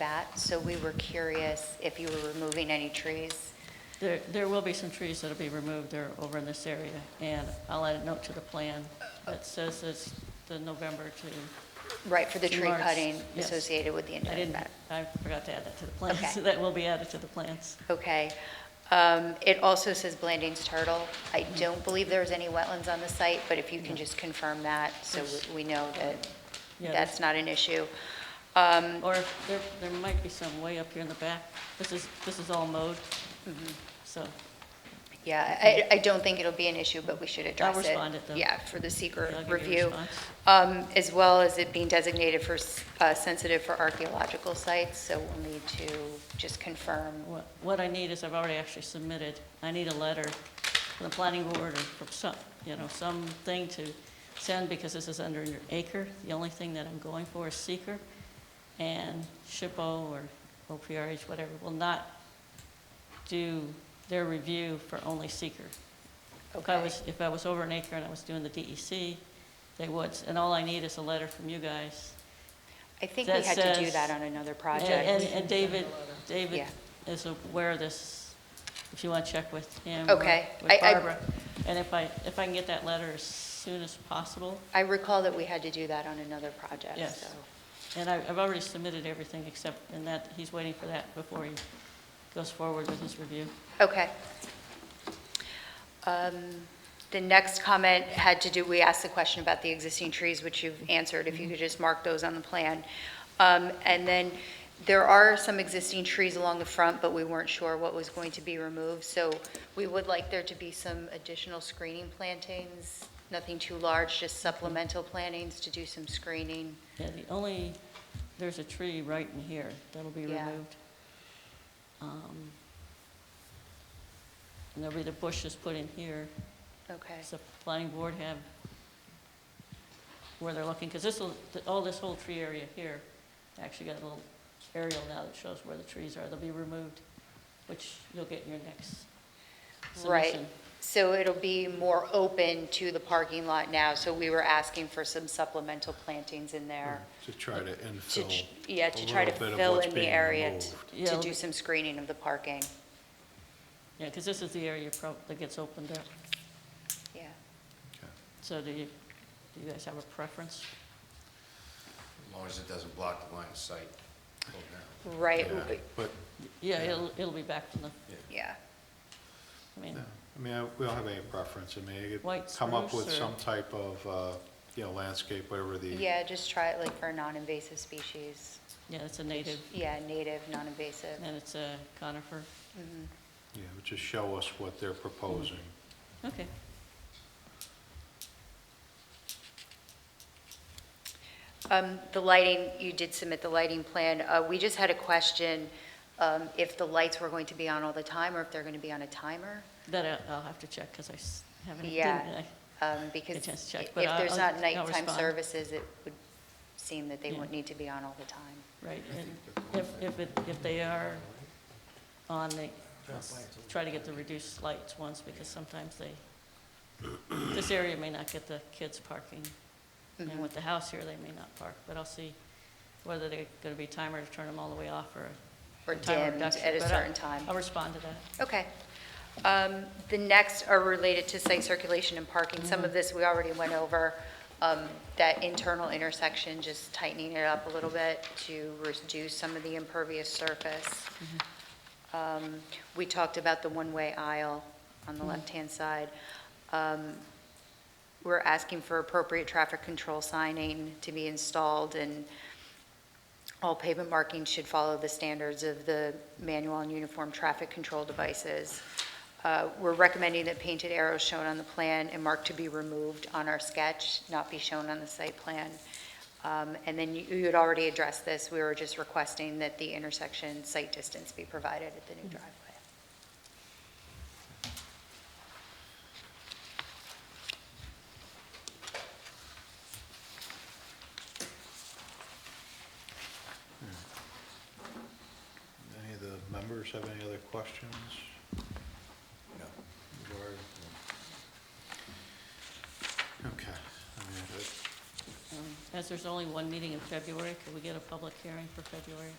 that, so we were curious if you were removing any trees. There, there will be some trees that'll be removed there over in this area, and I'll add a note to the plan that says it's the November to, Right, for the Tree tree marks, cutting yes. associated with the I indirect didn't, back. I forgot to add that to the plan, Okay. so that will be added to the plans. Okay. Um, It also says Blandings Turtle. I Mm-hmm. don't believe there's any wetlands on the site, but if you can just confirm that, so Yes. we we know that Yeah, that's not an issue. Um, Or if there, there might be some way up here in the back. This is, this is all mowed, Mm-hmm. so, Yeah, I, I don't think it'll be an issue, but we should address it. respond it, though. Yeah, for the seeker Yeah, I'll give you a review. response. Um, As well as it being designated for, s- uh, sensitive for archaeological sites, so we'll need to just confirm what, what I need is, I've already actually submitted, I need a letter from the planning board or from some, you know, something to send, because this is under an acre. The only thing that I'm going for is seeker, and SHPO or OPRH, whatever, will not do their review for only seeker. If I Okay. was, if I was over an acre and I was doing the DEC, they would, and all I need is a letter from you guys I think we that had to do says- that on another and- project. And and David, David Yeah. is aware of this, if you want to check with him. or Okay. I- With I- Barbara. And if I, if I can get that letter as soon as possible, I recall that we had to do that on another project, Yes. so. and I- I've already submitted everything except, and that, he's waiting for that before he goes forward with his review. Okay. Um, The next comment had to do, we asked the question about the existing trees, which you've answered, Mm-hmm. if you could just mark those on the plan. Um, And then there are some existing trees along the front, but we weren't sure what was going to be removed. So we would like there to be some additional screening plantings, nothing too large, just supplemental plantings to do some screening. Yeah, the only, there's a tree right in here that'll be Yeah. removed. Um, And there'll be the bushes put in here. Okay. Does the planning board have where they're looking? Because this will, all this whole tree area here, actually got a little aerial now that shows where the trees are. They'll be removed, which you'll get in your next Right, submission. so it'll be more open to the parking lot now, so we were asking for some supplemental plantings in there To try to to, infill. ch- yeah, a to try to little bit of fill what's in the being area, removed. t- Yeah, to it'll do be- some screening of the parking, Yeah, because this is the area prob- that gets opened up. yeah. Okay. So do you, do you guys have a preference? As long as it doesn't block the line of sight. Hold down. Right, Yeah, But, Yeah, it'll, it'll be back from the, yeah, I mean, yeah. I mean, I- we don't have any preference. I mean, you White could come up spruce with or- some type of, uh, you know, landscape, whatever the, yeah, just try it like for a non-invasive species, yeah, it's a native, yeah, native, non-invasive, and it's a conifer. you know, just show us what they're proposing. Okay. Um, The lighting, you did submit the lighting plan. Uh, We just had a question, um, if the lights were going to be on all the time, or if they're going to be on a timer? That I- I'll have to check because I s- haven't, didn't Yeah, I? um, because just check, if but I'll- there's not I'll nighttime respond. services, it would seem that they Yeah. wouldn't need to be on all the time. Right, and if, if it, if they are on the, try to get the reduced lights once, because sometimes they, this area may not get the kids parking, Mm-hmm. and with the house here, they may not park, but I'll see whether they're gonna be timer to turn them all the way off, or Or timer dimmed reduction, at a but I'll- certain time. I'll respond to that. Okay. Um, The next are related to site circulation and parking. Some of this we already went over, um, that internal intersection, just tightening it up a little bit to reduce some of the impervious surface. Um, We talked about the one-way aisle on the left-hand side. Um, We're asking for appropriate traffic control signing to be installed, and all pavement markings should follow the standards of the manual and uniform traffic control devices. Uh, We're recommending that painted arrows shown on the plan and marked to be removed on our sketch, not be shown on the site plan. Um, And then you- you had already addressed this, we were just requesting that the intersection site distance be provided at the new driveway. Any of the members have any other questions? No. regarding- Okay. I mean, that- Um, As there's only one meeting in February, could we get a public hearing for February?